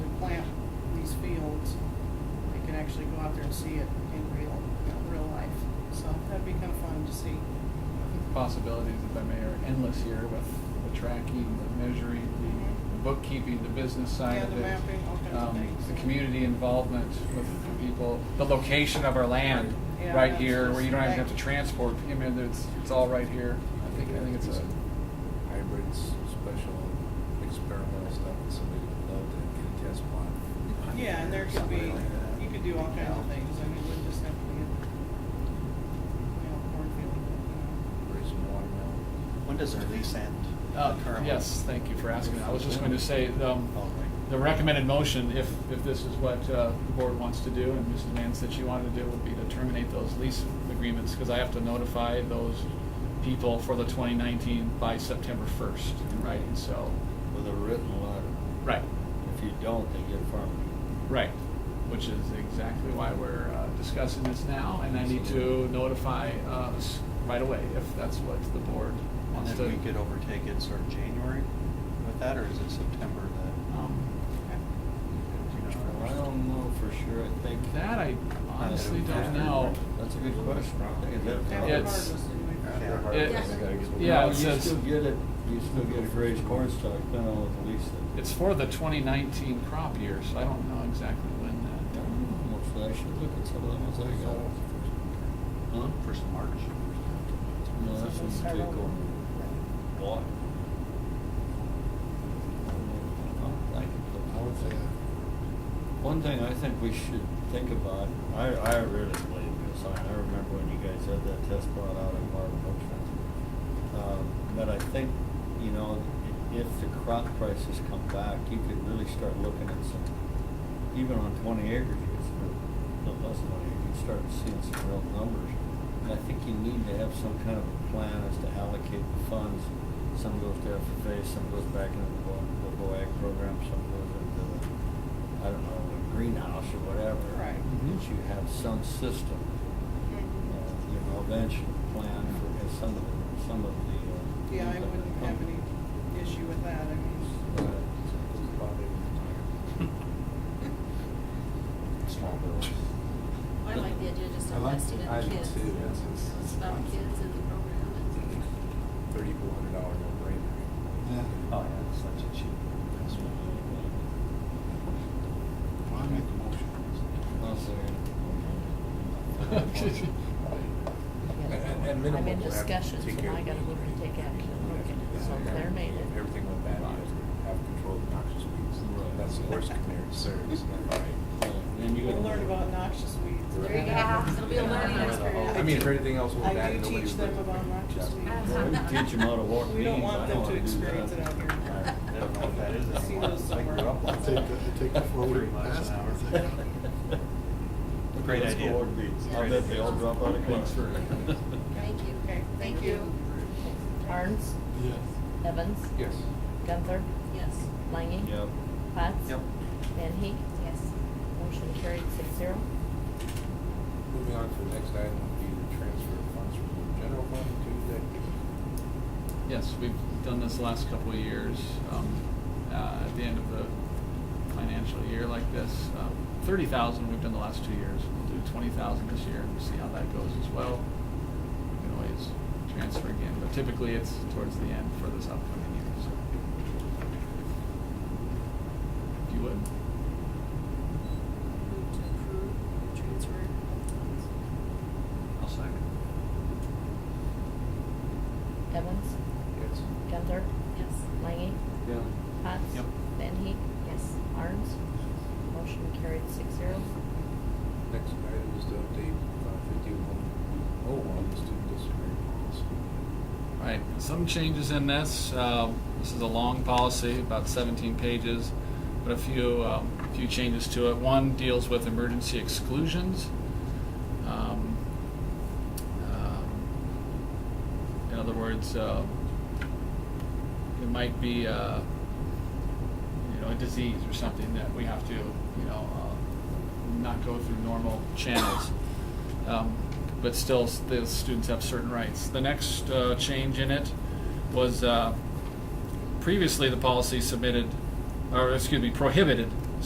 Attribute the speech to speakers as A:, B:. A: actually go out there and see it in real, you know, real life. So that'd be kind of fun to see.
B: I think the possibilities, if I may, are endless here with the tracking, the measuring, the- the bookkeeping, the business side
A: Yeah,
B: of it.
A: the mapping, all kinds of
B: um,
A: things.
B: The community involvement with the people, the location of our land,
A: Yeah,
B: right
A: that's
B: here, where you don't even have to
A: just-
B: transport, I mean, it's, it's all right here. I think, I think it's a,
C: Hybrids, special experimental stuff that somebody would love to get a test on.
A: Yeah, and there could be,
C: Something like that.
A: you could do all kinds of things. I mean, it wouldn't just have to be a, you know, cornfield, you
C: Raise some watermelon.
D: When does our lease end?
B: uh,
D: The current
B: yes, thank you for asking. I was just going to say, um,
D: one? Oh, right.
B: the recommended motion, if, if this is what uh, the board wants to do, and Mrs. Mann said she wanted to do, would be to terminate those lease agreements, because I have to notify those people for the 2019 by September 1st, in writing. so,
E: with a written letter.
B: right,
E: If you don't, they get farmed.
B: right, which is exactly why we're uh, discussing this now, and I need to notify uh, us right away if that's what the board
D: And
B: wants to.
D: then we could overtake it sort of January with that, or is it September that?
B: Um,
A: know.
D: you know,
E: I don't know for sure, I think.
B: That I honestly don't know.
E: That's a good question.
A: Okay.
B: Yeah,
A: Yeah,
B: it's-
A: regardless, anyway.
D: Yeah.
B: Yeah, it
E: You
B: says-
E: still get it, you still get a raised corn stock, depending on what the lease is.
B: It's for the 2019 crop year, so I don't know exactly when
E: I
B: that.
E: don't know, so I should look at some of the ones I uh, got. Huh?
D: First of March.
E: No, that's
A: So
E: when you
A: I
E: take
A: don't-
E: over. What?
C: I would say,
E: One thing I think we should think about, I, I really believe this, I, I remember when you guys had that test plot out in Marvin Ocean. Um, but I think, you know, i- if the crop prices come back, you could really start looking at some, even on twenty acres, you could start, no less than twenty, you could start seeing some real numbers. And I think you need to have some kind of a plan as to allocate the funds. Some goes to FFA, some goes back into the Bo, the BOAG program, some goes into the, I don't know, the greenhouse or whatever.
A: Right.
E: That you have some system uh,
A: Mhm.
E: you know, eventual plan for uh, some of the, some of the. uh,
A: Yeah, I wouldn't have any issue with that. I mean,
E: Uh,
C: it's probably small bills.
F: I like the idea of just
C: I like-
F: investing in
C: I
F: the
C: do
F: kids.
C: too. That's- that's-
F: It's about the kids in the program and
C: Mm-hmm. Thirty-four hundred dollar no brainer.
D: Oh, yeah, it's such a cheap investment.
C: I make the motion.
E: I'll uh,
B: Excuse me.
C: At- at minimum, we'll
G: I'm in
C: have to
G: discussions
C: take
G: and
C: care
G: I
C: of
G: gotta
C: the
G: look and take action,
C: weed.
G: look into it, so they're made it.
C: Everything with that is have control of noxious weeds.
E: Right.
C: That's the worst canary service.
E: Then you.
A: we'll
E: gotta-
A: learn about noxious weeds.
F: There you go. It'll be a learning experience.
C: I mean, if everything else was
A: I
C: bad,
A: do
C: nobody would.
A: teach them about noxious weeds.
E: Well, we Teach them how to walk
A: We
E: beans,
A: don't
E: I don't
A: want them
E: wanna
A: to
E: do
A: experience
E: that.
A: it out here.
D: I don't know what that is
A: See
D: anymore.
A: those
D: I grew up
A: somewhere.
D: on
H: Take
D: that.
H: the, take the floating
D: miles an
H: past.
D: hour.
E: Okay,
D: Great
E: let's go
D: idea.
E: walk beans. I
D: Great
E: bet they
D: idea.
E: all drop out of class.
B: Thanks for-
F: Thank you.
A: Okay, thank you.
G: Arns,
H: Yes.
G: Evans,
C: Yes.
G: Gunther,
F: Yes.
G: Langy.
E: Yep.
G: Potts.
D: Yep.
G: Van Heek,
F: Yes.
G: motion carried six zero.
C: Moving on to the next item, would be the transfer of funds from the general fund to the
B: Yes, we've done this the last couple of years. Um, uh, At the end of the financial year like this, um, 30,000 we've done the last two years. We'll do 20,000 this year and see how that goes as well. We can always transfer again, but typically it's towards the end for this upcoming year, so. If you would.
F: Move to approve the transfer of funds.
D: I'll second.
G: Evans,
C: Yes.
G: Gunther,
F: Yes.
G: Langy,
E: Yeah.
G: Potts.
D: Yep.
G: Van Heek,
F: Yes.
G: Arns, motion carried six zero.
C: Next item is to update uh, fifty-one oh one, the student disciplinary policy.
B: Right, some changes in this. Um, This is a long policy, about 17 pages, but a few, um, a few changes to it. One deals with emergency exclusions. Um, um, In other words, uh, it might be, uh, you know, a disease or something that we have to, you know, uh, not go through normal channels. Um, But still, s- the students have certain rights. The next uh, change in it was uh, previously the policy submitted, or excuse me, prohibited